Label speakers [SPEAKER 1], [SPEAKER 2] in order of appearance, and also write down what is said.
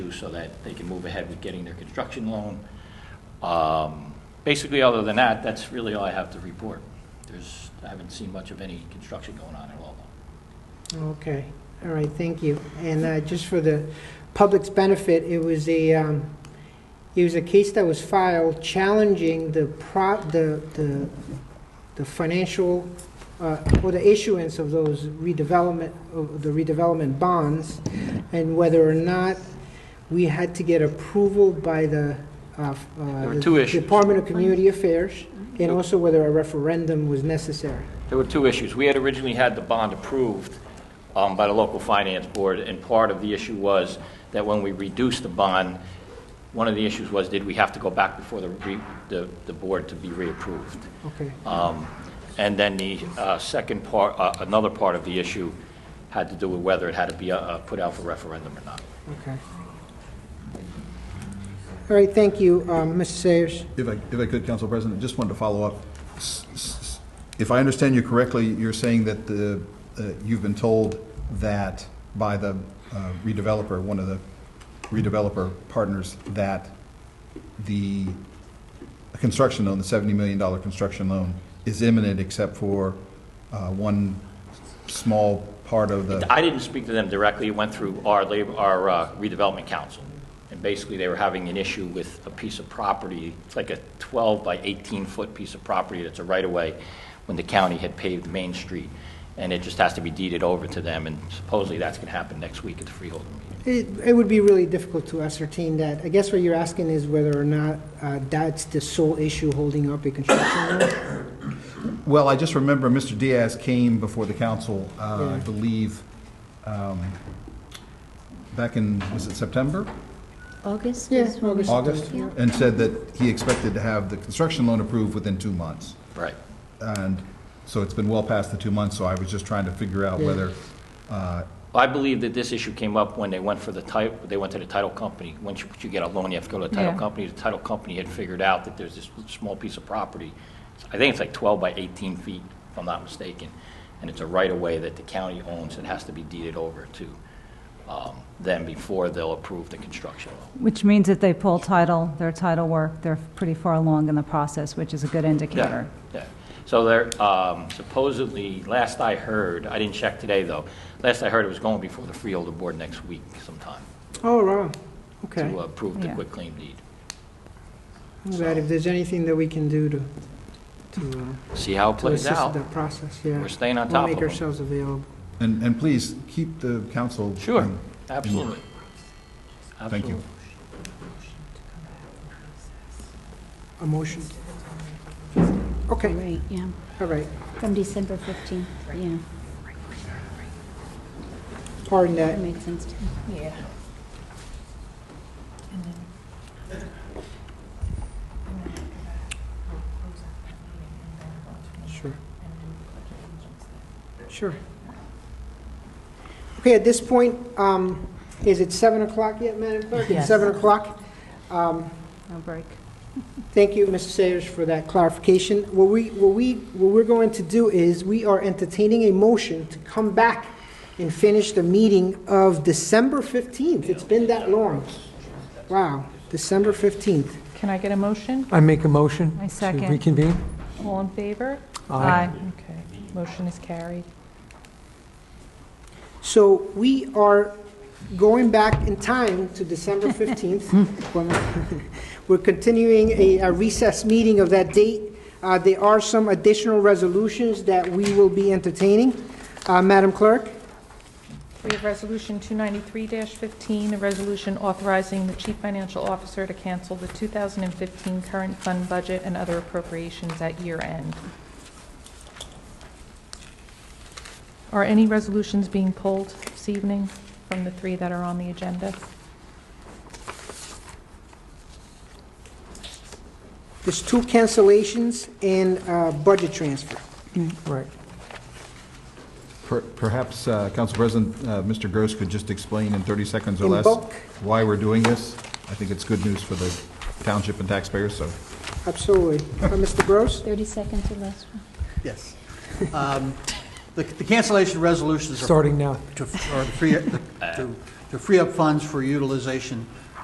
[SPEAKER 1] do so that they can move ahead with getting their construction loan. Um, Basically, other than that, that's really all I have to report. There's, I haven't seen much of any construction going on at all.
[SPEAKER 2] Okay, all right, thank you. And uh, just for the public's benefit, it was a, um, it was a case that was filed challenging the pro, the, the, the financial, uh, or the issuance of those redevelopment, of the redevelopment bonds, and whether or not we had to get approval by the. uh, uh,
[SPEAKER 1] There were
[SPEAKER 2] the
[SPEAKER 1] two issues.
[SPEAKER 2] Department of Community Affairs, and also whether a referendum was necessary.
[SPEAKER 1] There were two issues. We had originally had the bond approved um, by the local finance board, and part of the issue was that when we reduced the bond, one of the issues was, did we have to go back before the re- the, the board to be reapproved?
[SPEAKER 2] Okay.
[SPEAKER 1] Um, And then the uh, second part, uh, another part of the issue had to do with whether it had to be uh, put out for referendum or not.
[SPEAKER 2] Okay. All right, thank you, um, Mr. Sayers.
[SPEAKER 3] If I, if I could, Council President, just wanted to follow up. S- s- If I understand you correctly, you're saying that the, uh, you've been told that by the uh, redeveloper, one of the redeveloper partners, that the construction loan, the $70 million construction loan, is imminent except for uh, one small part of the,
[SPEAKER 1] I didn't speak to them directly, it went through our labor, our uh, redevelopment council. And basically, they were having an issue with a piece of property, it's like a 12 by 18-foot piece of property that's a right-of-way, when the county had paved Main Street, and it just has to be deeded over to them, and supposedly that's going to happen next week at the freeholder meeting.
[SPEAKER 2] It, it would be really difficult to ascertain that. I guess what you're asking is whether or not, uh, that's the sole issue holding up a construction loan?
[SPEAKER 3] well, I just remember Mr. Diaz came before the council, uh, I
[SPEAKER 2] Yeah.
[SPEAKER 3] believe, um, back in, was it September?
[SPEAKER 4] August
[SPEAKER 2] Yeah,
[SPEAKER 4] is when we-
[SPEAKER 3] August,
[SPEAKER 4] Yeah.
[SPEAKER 3] and said that he expected to have the construction loan approved within two months.
[SPEAKER 1] Right.
[SPEAKER 3] And so it's been well past the two months, so I was just trying to figure out
[SPEAKER 2] Yeah.
[SPEAKER 3] whether, uh,
[SPEAKER 1] I believe that this issue came up when they went for the title, they went to the title company. Once you- you get a loan, you have to go to the title
[SPEAKER 5] Yeah.
[SPEAKER 1] company. The title company had figured out that there's this small piece of property. I think it's like 12 by 18 feet, if I'm not mistaken. And it's a right-of-way that the county owns and has to be deeded over to um, them before they'll approve the construction loan.
[SPEAKER 5] Which means if they pull title, their title work, they're pretty far along in the process, which is a good indicator.
[SPEAKER 1] Yeah, yeah. So there, um, supposedly, last I heard, I didn't check today, though, last I heard it was going before the freeholder board next week sometime
[SPEAKER 2] Oh, wow, okay.
[SPEAKER 1] to uh, approve the
[SPEAKER 5] Yeah.
[SPEAKER 1] quitclaim deed.
[SPEAKER 2] I'm glad if there's anything that we can do to, to, uh,
[SPEAKER 1] See how it
[SPEAKER 2] to
[SPEAKER 1] plays
[SPEAKER 2] assist
[SPEAKER 1] out.
[SPEAKER 2] that process, yeah.
[SPEAKER 1] We're staying on
[SPEAKER 2] We'll
[SPEAKER 1] top of
[SPEAKER 2] make
[SPEAKER 1] them.
[SPEAKER 2] ourselves available.
[SPEAKER 3] and, and please, keep the council.
[SPEAKER 1] Sure, absolutely.
[SPEAKER 3] Thank you.
[SPEAKER 1] Absolutely.
[SPEAKER 2] A motion? Okay,
[SPEAKER 4] Right, yeah,
[SPEAKER 2] all right.
[SPEAKER 4] from December 15th, yeah,
[SPEAKER 2] Pardon
[SPEAKER 4] that
[SPEAKER 2] that.
[SPEAKER 4] makes sense to me.
[SPEAKER 6] Yeah.
[SPEAKER 2] Sure. Sure. Okay, at this point, um, is it 7 o'clock yet, Madam Clerk? It's
[SPEAKER 6] Yes.
[SPEAKER 2] 7 o'clock. Um,
[SPEAKER 5] No break.
[SPEAKER 2] Thank you, Mr. Sayers, for that clarification. What we, what we, what we're going to do is, we are entertaining a motion to come back and finish the meeting of December 15th. It's been that long. Wow, December 15th.
[SPEAKER 6] Can I get a motion?
[SPEAKER 7] I make a motion.
[SPEAKER 5] I second.
[SPEAKER 7] To reconvene.
[SPEAKER 6] All in favor?
[SPEAKER 5] Aye.
[SPEAKER 6] Okay, motion is carried.
[SPEAKER 2] So we are going back in time to December 15th. When- We're continuing a a recess meeting of that date. Uh, There are some additional resolutions that we will be entertaining. Uh, Madam Clerk?
[SPEAKER 6] We have Resolution 293-15, a resolution authorizing the Chief Financial Officer to cancel the 2015 current fund budget and other appropriations at year end. Are any resolutions being pulled this evening from the three that are on the agenda?
[SPEAKER 2] There's two cancellations and uh, budget transfer.
[SPEAKER 7] Right.
[SPEAKER 3] Per- Perhaps, uh, Council President, uh, Mr. Gross could just explain in 30 seconds or
[SPEAKER 2] In
[SPEAKER 3] less
[SPEAKER 2] bulk.
[SPEAKER 3] why we're doing this. I think it's good news for the township and taxpayers, so.
[SPEAKER 2] Absolutely. Uh, Mr. Gross?
[SPEAKER 4] 30 seconds or less.
[SPEAKER 8] Yes. Um, The the cancellation resolutions are
[SPEAKER 7] Starting now.
[SPEAKER 8] to, are to free, to to free up funds for utilization